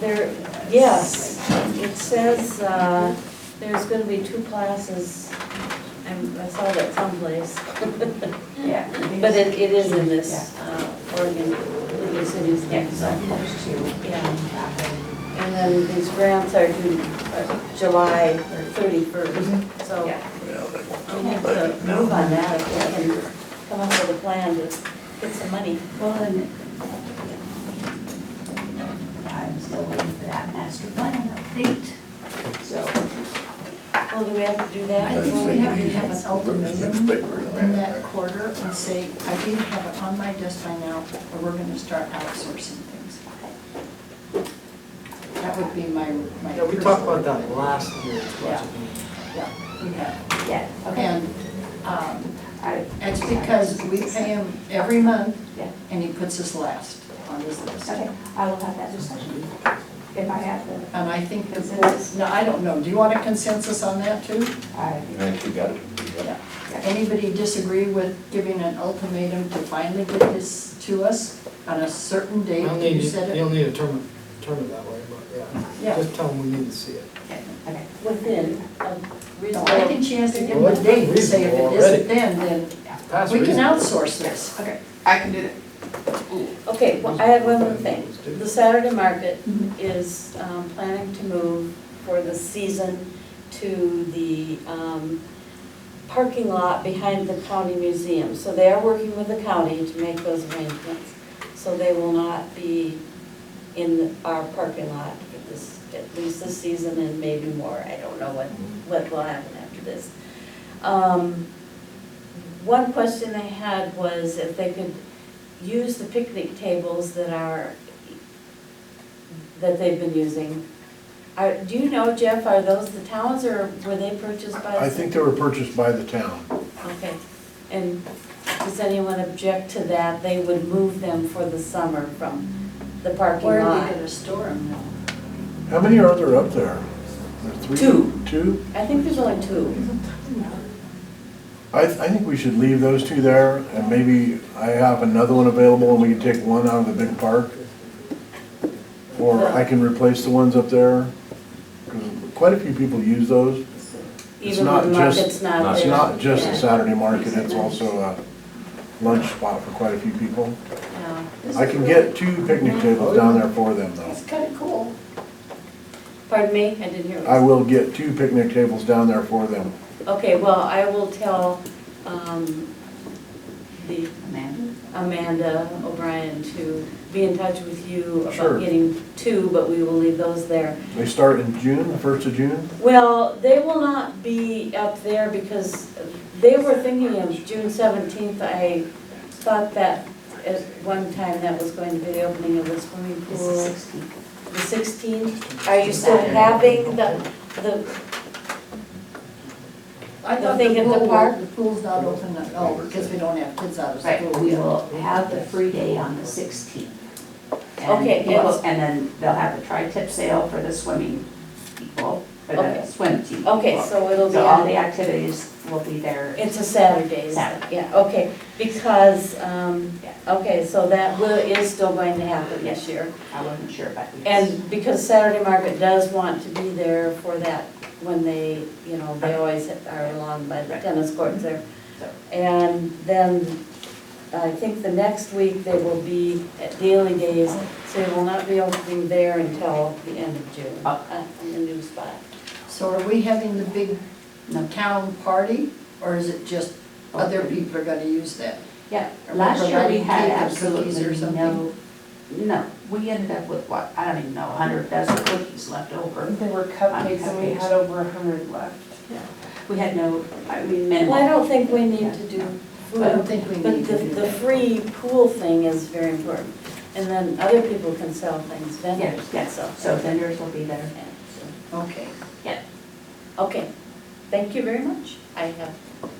There, yes, it says, uh, there's gonna be two classes, I'm- I saw that someplace. Yeah. But it, it is in this, uh, Oregon, League of Cities, Yeah, so yeah. there's two. And then these grants are due uh, July thirty-first, so Yeah. we have to move on that if we can come up with a plan to get some money. Well, and I'm still waiting for that master plan update, so. Well, do we have to do I that? think we have to have an ultimatum in that ultimatum. quarter and say, I didn't have it on my desk by now, or we're gonna start outsourcing things. That would be my, my. Yeah, we talked about that last year's budget meeting. Yeah, we have. Yeah, okay. And, um, I- it's because we pay him every month, Yeah. and he puts us last on his list. Okay, I will have that discussion if I have the, And I think the Consensus. board, no, I don't know, do you want a consensus on that too? I, Right, you got it. Yeah. Anybody disagree with giving an ultimatum to finally get this to us on a certain date? You'll You need, said you'll it. need to term, term it that way, but yeah, Yeah. just tell them we need to see it. okay. Within a No, I reasonable, think she has to give Well, them a that's date and say if it reasonable isn't then, then That's we can reasonable. outsource this. Okay, I can do that. okay, well, I have one more thing. The Saturday market is um, planning to move for the season to the um, parking lot behind the county museum. So they are working with the county to make those arrangements. So they will not be in our parking lot for this, at least this season and maybe more. I don't know what, what will happen after this. Um, One question they had was if they could use the picnic tables that are, that they've been using. Are, do you know, Jeff, are those the towns or were they purchased by? I think they were purchased by the town. Okay, and does anyone object to that? They would move them for the summer from the parking Where are lot. they gonna store them now? How many are there up there? There are three- Two. Two? I think there's only two. I, I think we should leave those two there, and maybe I have another one available, and we can take one out of the big park. Or I can replace the ones up there, 'cause quite a few people use those. It's Even not when just- market's not there. It's not just a Yeah, Saturday market, it's also a lunch spot for quite a few people. yeah. I can get two picnic tables down there for them, though. That's kinda cool. Pardon me, I didn't hear what you I will get two picnic tables down there for them. said. Okay, well, I will tell, um, the Amanda? Amanda O'Brien to be in touch with you Sure. about getting two, but we will leave those there. They start in June, the first of June? Well, they will not be up there because they were thinking of June seventeenth. I thought that at one time that was going to be the opening of the swimming This is pool. sixteen. The sixteenth, are you still having the, the, I thought They the get the pool, park? the pool's not open at all, because we don't have kids out of Right, school. we will have the free day on the sixteenth. Okay, And people, it's- and then they'll have the tri-tip sale for the swimming people, for the Okay. swim team people. okay, so it'll be So all the on, activities will be there. it's a Saturday, is it? Saturday. yeah, okay. Because, um, Yeah. okay, so that will, is still going to happen this year. I wasn't sure, but yes. And because Saturday Market does want to be there for that, when they, you know, they always are along by the Right. tennis courts there. So- And then, I think the next week, they will be at Daily Days, so they will not be opening there until the end of June, Oh. uh, in the new spot. So are we having the big town party, or is it just other people are gonna use that? Yeah, Are we last year we providing had cake or cookies or absolutely something? no, no, we ended up with what, I don't even know, a hundred dozen cookies left over. There were cupcakes and we had over a hundred left. We had no, I mean, Well, minimal. I don't think we need to do I food, don't think we but need the, to do the that. free pool thing is very important. And then other people can sell things, Yes, vendors can yes, sell. so vendors will be there. things. So- Okay. Okay, thank you very much. I have,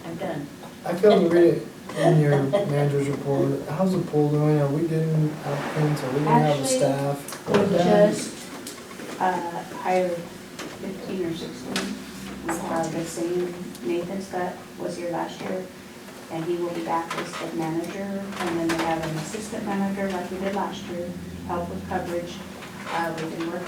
I'm done. I failed to read it in your manager's report. How's the pool doing? Are we getting applicants? Are we gonna have a Actually, staff? We just, uh, hired fifteen or sixteen. We have the same Nathan's that was here last year, and he will be back as the manager, and then we have an assistant manager like we did last year, help with coverage. Uh, we've been working